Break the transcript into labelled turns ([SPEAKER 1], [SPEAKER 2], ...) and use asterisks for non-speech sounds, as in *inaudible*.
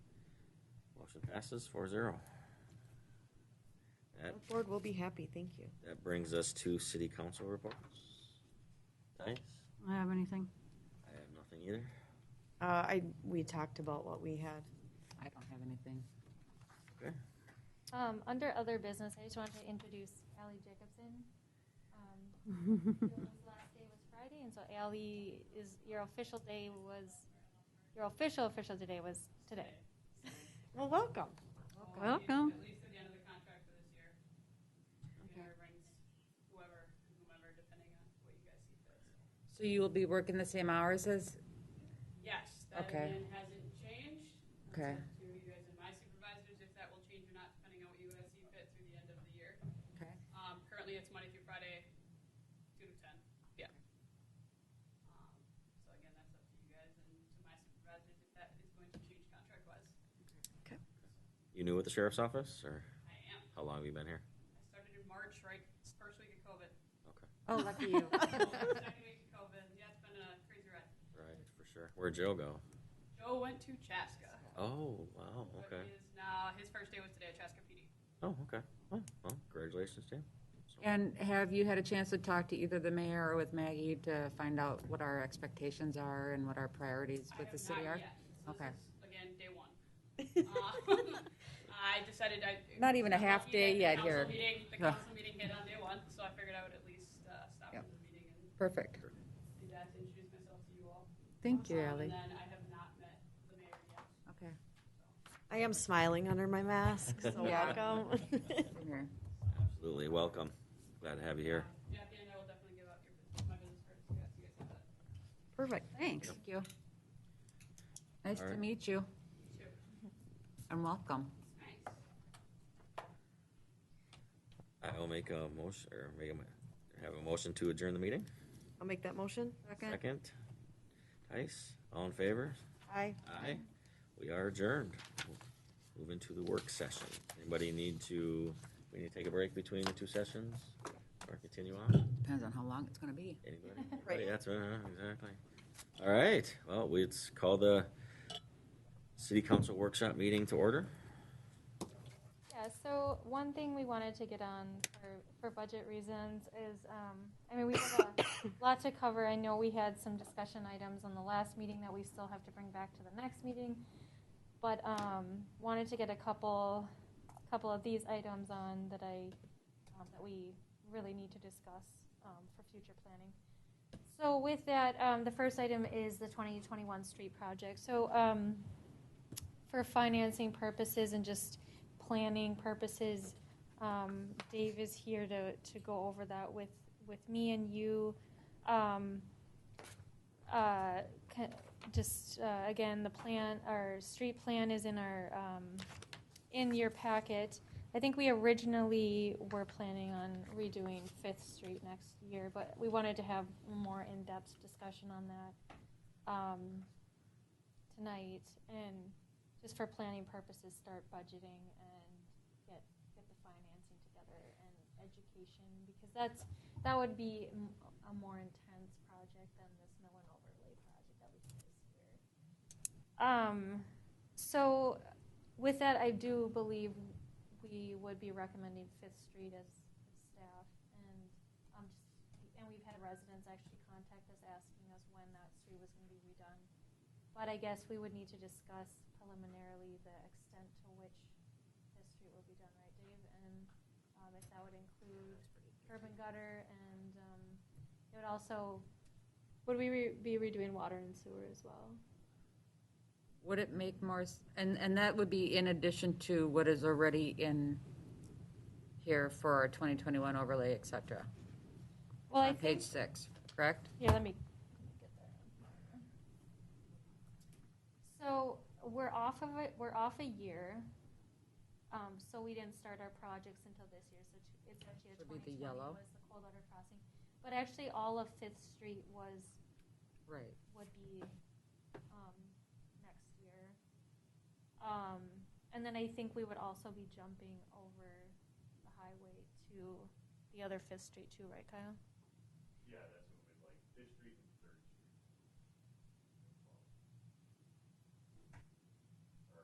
[SPEAKER 1] Motion passes four zero. That,
[SPEAKER 2] Board will be happy, thank you.
[SPEAKER 1] that brings us to city council reports. Nice.
[SPEAKER 3] I have anything?
[SPEAKER 1] I have nothing either.
[SPEAKER 2] Uh, I, we talked about what we had.
[SPEAKER 4] I don't have anything.
[SPEAKER 1] Okay.
[SPEAKER 5] Um, under other business, I just wanted to introduce Allie Jacobson. Um, Ally's last day was Friday, and so Allie is your official day was your official official today was today.
[SPEAKER 2] Well, welcome.
[SPEAKER 3] Welcome.
[SPEAKER 6] At least at the end of the contract for this year. You know, it brings whoever, whomever, depending on what you guys see fit. so.
[SPEAKER 4] So you will be working the same hours as,
[SPEAKER 6] Yes, that
[SPEAKER 4] Okay.
[SPEAKER 6] again hasn't changed. That's
[SPEAKER 4] Okay.
[SPEAKER 6] up To you guys and my supervisors, if that will change or not, depending on what you guys see fit through the end of the year.
[SPEAKER 4] okay,
[SPEAKER 6] Um, currently, it's Monday through Friday, two to ten. Yeah. Um, So again, that's up to you guys and to my supervisors if that is going to change contract-wise.
[SPEAKER 1] You new with the sheriff's office, or
[SPEAKER 6] I am.
[SPEAKER 1] how long have you been here?
[SPEAKER 6] I started in March, right, first week of COVID.
[SPEAKER 1] Okay,
[SPEAKER 4] oh, lucky you.
[SPEAKER 6] Second week of COVID. Yeah, it's been a crazy ride.
[SPEAKER 1] right, for sure. Where'd Joe go?
[SPEAKER 6] Joe went to Chaska.
[SPEAKER 1] Oh, wow,
[SPEAKER 6] but
[SPEAKER 1] okay.
[SPEAKER 6] He is now, his first day was today at Chaska PD.
[SPEAKER 1] Oh, okay. Well, well, congratulations, Jim. So-
[SPEAKER 4] *laughs* And have you had a chance to talk to either the mayor or with Maggie to find out what our expectations are and what our priorities
[SPEAKER 6] I
[SPEAKER 4] with
[SPEAKER 6] have
[SPEAKER 4] the city
[SPEAKER 6] not
[SPEAKER 4] are?
[SPEAKER 6] yet. So
[SPEAKER 4] Okay.
[SPEAKER 6] This is, again, day one. Um, *laughs* I decided I.
[SPEAKER 4] *laughs* Not even a
[SPEAKER 6] I'm
[SPEAKER 4] half
[SPEAKER 6] lucky
[SPEAKER 4] day
[SPEAKER 6] that
[SPEAKER 4] yet
[SPEAKER 6] the
[SPEAKER 4] here.
[SPEAKER 6] Council meeting, the
[SPEAKER 4] Yeah.
[SPEAKER 6] council meeting hit on day one, so I figured I would at least uh, stop
[SPEAKER 4] Yep.
[SPEAKER 6] from the meeting and
[SPEAKER 4] Perfect.
[SPEAKER 6] do that to introduce myself to you all.
[SPEAKER 4] Thank you,
[SPEAKER 6] Um,
[SPEAKER 4] Ally.
[SPEAKER 6] And then I have not met the mayor yet.
[SPEAKER 4] Okay.
[SPEAKER 2] *laughs* I am smiling under my mask, so
[SPEAKER 4] Yeah.
[SPEAKER 2] welcome. *laughs*
[SPEAKER 4] Come here.
[SPEAKER 1] Absolutely, welcome. Glad to have you here.
[SPEAKER 6] Uh, Jackie and I will definitely give out your, bus- my business cards, so you guys- you guys have that.
[SPEAKER 2] Perfect.
[SPEAKER 4] Thanks. Thank you. Nice
[SPEAKER 1] All
[SPEAKER 4] to
[SPEAKER 1] right.
[SPEAKER 4] meet you
[SPEAKER 6] Sure.
[SPEAKER 4] and welcome.
[SPEAKER 6] Nice.
[SPEAKER 1] I'll make a motion, or make a, mo- have a motion to adjourn the meeting.
[SPEAKER 2] I'll make that motion.
[SPEAKER 1] Second. Tice, all in favor?
[SPEAKER 2] Aye.
[SPEAKER 1] Aye. We are adjourned. We'll Move into the work session. Anybody need to, we need to take a break between the two sessions? Or continue on?
[SPEAKER 4] Depends on how long it's gonna be.
[SPEAKER 1] Anybody? Anybody? That's right, huh? exactly. All right, well, we it's call the city council workshop meeting to order.
[SPEAKER 5] Yeah, so one thing we wanted to get on for, for budget reasons is, um, I mean, we have a lot to cover. I know we had some discussion items on the last meeting that we still have to bring back to the next meeting. But, um, wanted to get a couple, couple of these items on that I, um, that we really need to discuss, um, for future planning. So with that, um, the first item is the 2021 street project. So, um, for financing purposes and just planning purposes, um, Dave is here to, to go over that with, with me and you. Um, uh, ca- just, uh, again, the plan, our street plan is in our, um, in your packet. I think we originally were planning on redoing Fifth Street next year, but we wanted to have more in-depth discussion on that, um, tonight. And just for planning purposes, start budgeting and get, get the financing together and education, because that's, that would be m- a more intense project than this mill and overlay project that we did this year. Um, so with that, I do believe we would be recommending Fifth Street as staff and, um, just, and we've had residents actually contact us asking us when that street was gonna be redone. But I guess we would need to discuss preliminarily the extent to which this street will be done, right, Dave? And um, if that would include curb and gutter, and um, it would also, would we re- be redoing water and sewer as well?
[SPEAKER 4] Would it make more, s- and, and that would be in addition to what is already in here for our 2021 overlay, et cetera?
[SPEAKER 5] Well, I
[SPEAKER 4] On page
[SPEAKER 5] think,
[SPEAKER 4] six, correct?
[SPEAKER 5] yeah, let me get that. So we're off of it, we're off a year, um, so we didn't start our projects until this year, so t- it's actually a
[SPEAKER 4] Should be the
[SPEAKER 5] 2020
[SPEAKER 4] yellow.
[SPEAKER 5] was the cold water crossing. But actually, all of Fifth Street was
[SPEAKER 4] Right.
[SPEAKER 5] would be um, next year. Um, and then I think we would also be jumping over the highway to the other Fifth Street too, right, Kyle?
[SPEAKER 7] Yeah, that's